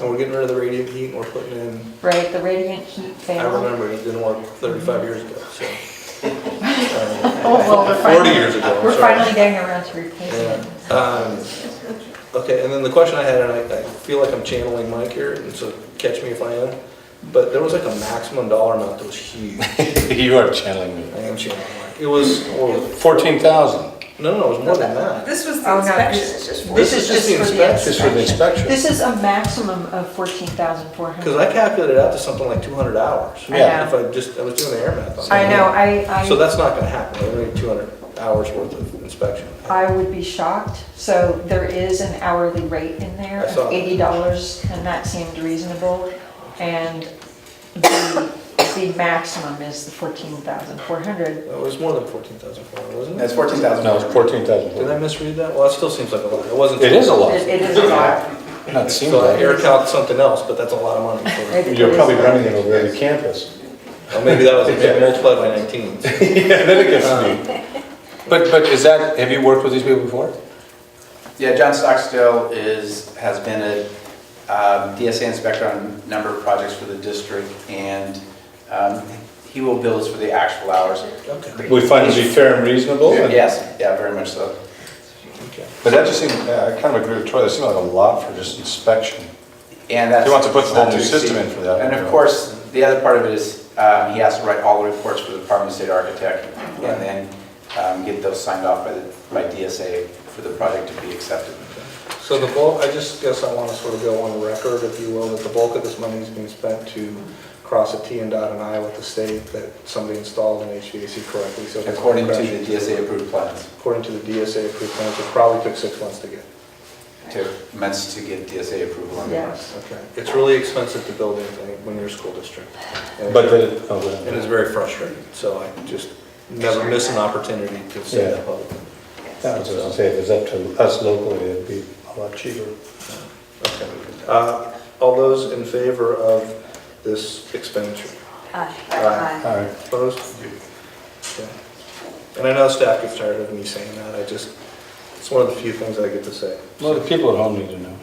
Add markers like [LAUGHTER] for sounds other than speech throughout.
And we're getting rid of the radiant heat and we're putting in, right, the radiant heat I failed. remember it didn't work thirty-five years ago, [LAUGHS] so. Um, Oh, well, we're Forty finally, years ago, I'm we're sorry. finally getting around to replacing Yeah. it. Um, Okay, and then the question I had, and I, I feel like I'm channeling Mike here, and so catch me if I am, but there was like a maximum dollar amount that was huge. I [LAUGHS] You are channeling me. am channeling Mike. It was, what was it? Fourteen thousand, no, no, it was more than that. This was the Oh, no, inspection. this is just, This is just the for the inspection. just for the inspection. inspection. This is a maximum of fourteen thousand four Because hundred. I calculated out to something like two hundred hours. I Yeah. If I just, I was doing the air math on I that. know, I, So I, that's not gonna happen, I need two hundred hours worth of inspection. I would be shocked. So there is an hourly rate in I there saw of that. eighty dollars, and that seemed reasonable. And the, the maximum is the fourteen thousand four hundred. It was more than fourteen thousand four hundred, wasn't That's it? fourteen thousand. No, it's fourteen Did I thousand. misread that? Well, that still seems like a lot, it wasn't. It is a lot. It it is a lot. Not seem So I like. air calc something else, but that's a lot of money for It- it You're is probably a lot. running it over every campus. Well, maybe that was maybe multiplied by 19. so. Yeah, then it gets me. Uh, But, but is that, have you worked with these people before? Yeah, John Stockstill is, has been a um, DSA inspector on a number of projects for the district, and um, he will bill us for the actual hours. Okay. We find it to be fair and reasonable? and- Yes, yeah, very much so. okay. But that just seemed, yeah, I kind of agree with Troy, that seemed like a lot for just inspection. And that's. He wants to put the whole not new exceed. system in for that. And of course, the other part of it is, um, he has to write all the reports for the Department of State Architect, and then um, get those signed off by, the by DSA for the project to be accepted. So the bulk, I just guess I want to sort of go on record, if you will, that the bulk of this money is being spent to cross a T and dot an I with the state that somebody installed an HVAC correctly, so. it doesn't According to crash. the DSA approved plans, According to the DSA approved plans, it probably took six months to get. to, meant to get DSA approval on the Yeah. plans. Okay. It's really expensive to build anything when you're a school district. And- But the, oh, And well, it's very frustrating, so I just never miss an opportunity to say that Yeah. publicly. that was what I was saying, if it's up to us locally, it'd be a lot cheaper. Okay. Uh, All those in favor of this expenditure? Uh, Aye. All right. Opposed? Okay. And I know staff gets tired of me saying that, I just, it's one of the few things I get to say. Well, the people at home need to know.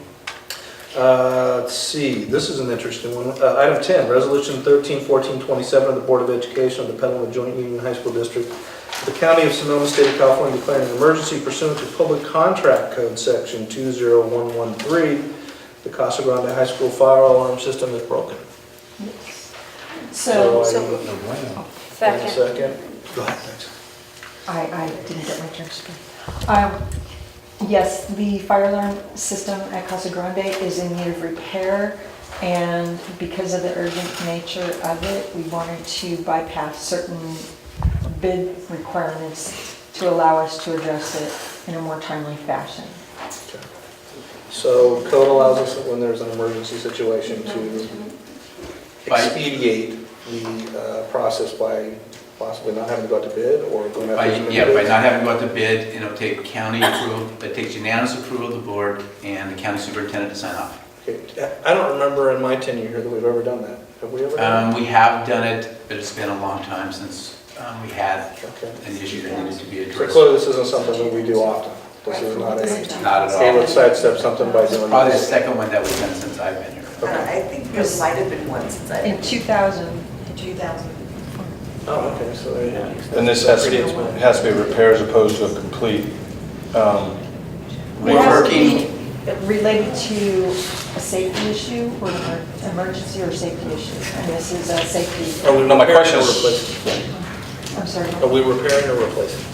Uh, Let's see, this is an interesting one. Uh, Item 10, Resolution 131427 of the Board of Education of the Petaluma Joint Union High School District, the County of Sonoma, State of California declaring an emergency pursuant to Public Contract Code Section 20113. The Casa Grande High School fire alarm system is broken. So I- So- No, why not? Wait Second. a Second. Go ahead, thanks. I, I didn't get my turn to speak. Um, Yes, the fire alarm system at Casa Grande is in need of repair, and because of the urgent nature of it, we wanted to bypass certain bid requirements to allow us to address it in a more timely fashion. Okay. So code allows us, when there's an emergency situation, to By- expedite the uh, process by possibly not having to go out to bid or going By, after some yeah, by bids. not having to go out to bid, and it'll take county approval, it takes unanimous approval of the board and the county superintendent to sign off. Okay. I don't remember in my tenure here that we've ever done that. Have we ever? done Um, we have done it, but it's been a long time since, um, we had that? Okay. an issue that needed to be So addressed. clearly, this isn't something that we do often. This is not a, Not at they all. would sidestep something by doing Probably the this. second one that we've done since I've been here. I think there might have been one since I've In been 2000, two thousand. Oh, okay, so there you go. And this has to, has to be repair as opposed to a complete, it um, has to be Working, related to a safety issue or an emer- emergency or safety issue, and this is a safety, Are we No, my repairing question or is- replacing? I'm sorry. Are we repairing or replacing?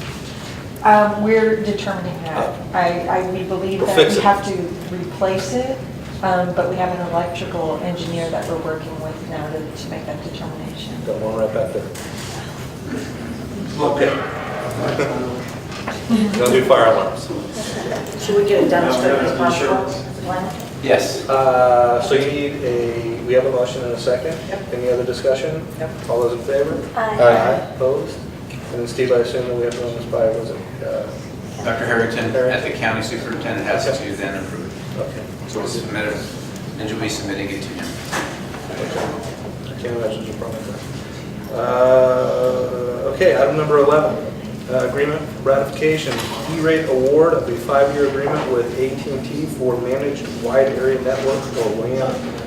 Um, We're determining that. I, I, we believe Oh. We'll that fix we it. have to replace it, um, but we have an electrical engineer that we're working with now to, to make that determination. Got one right back there. Okay. Don't do fire alarms. Should we get it done as quickly as possible? One? yes. Uh, So you need a, we have a motion and a second? Any other discussion? Yep. All those in favor? Opposed? And then Steve, I assume that we have to run this by, was it? uh, Dr. Harrington, at the county superintendent, has to then approve it. uh, Okay. So we'll submit it, and you'll be submitting it to him. I can't imagine there's a problem with that. Uh, Okay, item number 11. uh, agreement ratification, E-rate award of a five-year agreement with at and t for managed wide area network or WAN